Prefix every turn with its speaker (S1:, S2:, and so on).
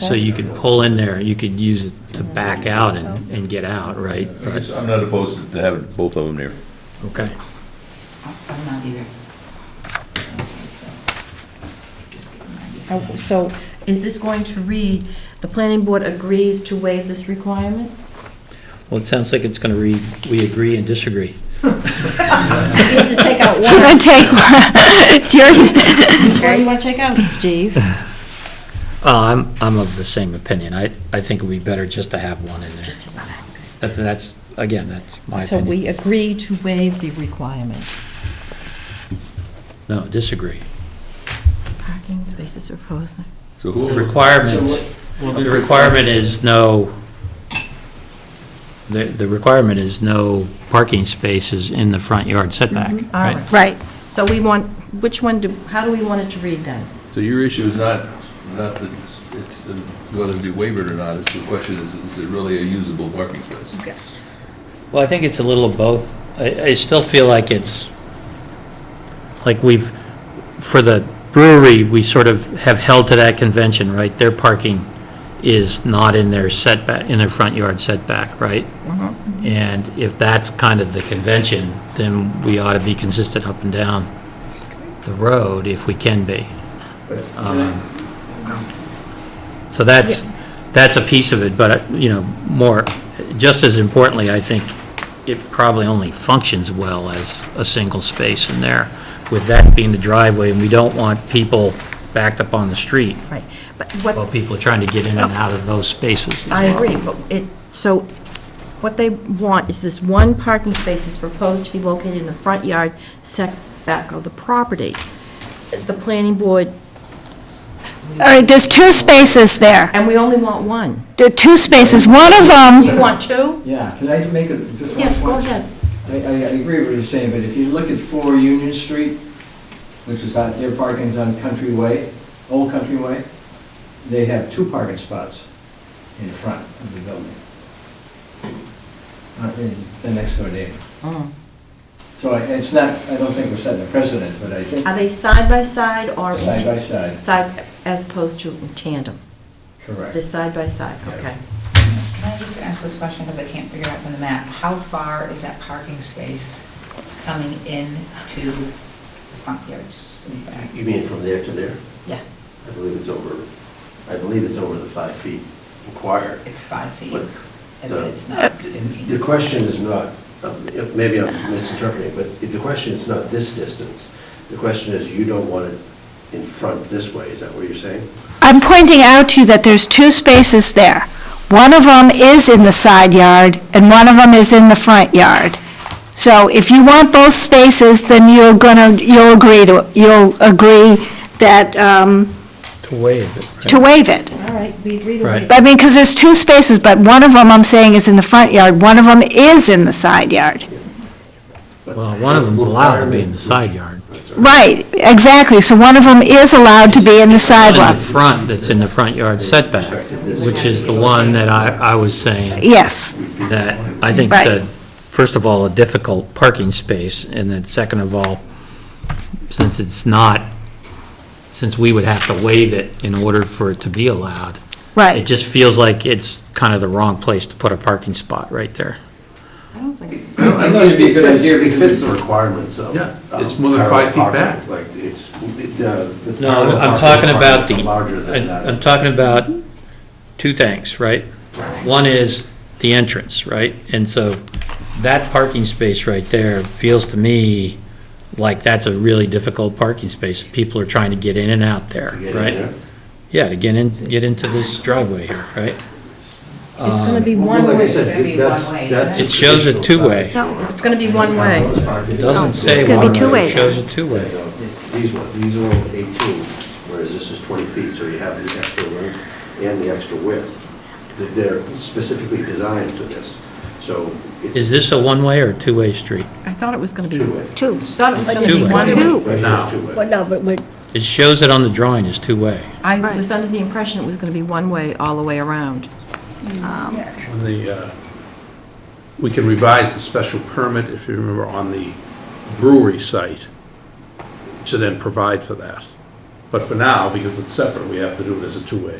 S1: So you could pull in there, you could use it to back out and, and get out, right?
S2: I guess I'm not opposed to having both of them there.
S1: Okay.
S3: I'm not either. Just give them an idea.
S4: Uh, So is this going to read, the planning board agrees to waive this requirement?
S1: Well, it sounds like it's gonna read, we agree and disagree.
S4: You need to take out
S5: We're
S4: one.
S5: going to take, do you-
S4: Which one you want to take out, Steve?
S1: Uh, I'm, I'm of the same opinion. I, I think it'd be better just to have one in there.
S4: Just take one out.
S1: That- That's, again, that's my
S4: So we
S1: opinion.
S4: agree to waive the requirement.
S1: No, disagree.
S4: Parking spaces are proposed.
S2: So
S1: The
S2: who,
S1: requirement, the requirement is no, the, the requirement is no parking spaces in the front yard setback,
S4: Mhm, all
S1: right?
S4: right.
S5: right,
S4: So we want, which one do, how do we want it to read then?
S2: so your issue is not, not that it's- it's, uh, whether it be wavered or not, it's the question is, is it really a usable parking space?
S1: Well, I think it's a little of both. I, I still feel like it's, like we've, for the brewery, we sort of have held to that convention, right? Their parking is not in their setback, in their front yard setback, right? And if that's kind of the convention, then we ought to be consistent up and down the road if we can be. Um, So that's, that's a piece of it, but, uh, you know, more, just as importantly, I think it probably only functions well as a single space in there, with that being the driveway, and we don't want people backed up on the street
S4: Right, but
S1: while
S4: what,
S1: people are trying to get in and out of those spaces.
S4: I agree, but it, so what they want is this one parking space is proposed to be located in the front yard setback of the property. The planning board,
S5: all right, there's two spaces there.
S4: and we only want one.
S5: There are two spaces, one of them,
S4: You want two?
S6: Yeah, can I make a, just one
S4: Yes, go
S6: point?
S4: ahead.
S6: I, I I agree with what you're saying, but if you look at 4 Union Street, which is on, their parking's on Country Way, Old Country Way, they have two parking spots in front of the building. Uh, in The next door neighbor.
S4: Mm.
S6: So I- it's not, I don't think we're setting a precedent, but I think
S4: Are they side by side or?
S6: side by side,
S4: Side, as opposed to in tandem?
S6: correct.
S4: They're side by side, okay.
S3: Can I just ask this question, because I can't figure out from the map, how far is that parking space coming in to the front yards and back?
S7: You mean from there to there?
S3: Yeah,
S7: I believe it's over, I believe it's over the five feet required.
S3: it's five feet,
S7: But
S3: and
S7: the-
S3: it's
S5: Uh,
S3: not 15.
S7: The question is not, um, if- maybe I'm misinterpreting, but the question is not this distance. The question is, you don't want it in front this way, is that what you're saying?
S5: I'm pointing out to you that there's two spaces there. One of them is in the side yard, and one of them is in the front yard. So if you want both spaces, then you're gonna, you'll agree to, you'll agree that, um,
S1: To waive it.
S5: to waive it.
S4: All right, we agree to
S1: Right.
S4: waive.
S5: I mean, because there's two spaces, but one of them, I'm saying, is in the front yard, one of them is in the side yard.
S7: But-
S1: Well, one of them's allowed to be in the side yard.
S7: That's all right.
S5: Right, exactly, so one of them is allowed to be in the
S1: In
S5: sidewalk.
S1: the front, that's in the front yard setback, which is the one that I, I was saying.
S5: Yes,
S1: that I think
S5: Right.
S1: that, first of all, a difficult parking space, and then second of all, since it's not, since we would have to waive it in order for it to be allowed, it
S5: right.
S1: just feels like it's kind of the wrong place to put a parking spot right there.
S3: I don't think,
S6: I think it'd be a good
S7: It fits-
S6: idea
S7: It
S6: because-
S7: fits the requirements of.
S2: Yeah,
S7: of
S2: it's more than five feet
S7: parallel
S2: back.
S7: parking. Like, it's, it, uh, the.
S1: No, I'm-
S7: parallel
S1: I'm
S7: parking
S1: talking about
S7: requirements
S1: the,
S7: are Larger than that.
S1: I- I'm talking about two things, right? One is the entrance, right? And so that parking space right there feels to me like that's a really difficult parking space. People are trying to get in and out there,
S7: To get in
S1: right?
S7: there.
S1: Yeah, to get in, get into this driveway here, right?
S4: It's going to be
S7: Well,
S4: one
S7: like I
S4: way.
S7: said,
S3: It's gonna be
S7: that's-
S3: one way.
S7: that's
S1: It shows a
S7: traditional
S1: two-way.
S4: No, it's going to be one way.
S1: It doesn't say
S5: gonna
S1: one
S5: be
S1: way,
S5: two-way.
S1: it shows a
S7: There you
S1: two-way.
S7: go. These ones, these are all 18, whereas this is 20 feet, so you have the extra length and the extra width. Th- They're specifically designed for this, so it's.
S1: Um, Is this a one-way or a two-way street?
S4: I thought it was going to be,
S7: Two-way.
S5: Two.
S4: thought it was going to
S1: Two-way.
S4: be one way.
S5: Two.
S7: Right here is two-way.
S5: no, but we're.
S1: It shows it on the drawing as two-way.
S4: I was under the impression it was going to be one way all the way around.
S8: On the, uh, we can revise the special permit, if you remember, on the brewery site to then provide for that. But for now, because it's separate, we have to do it as a two-way.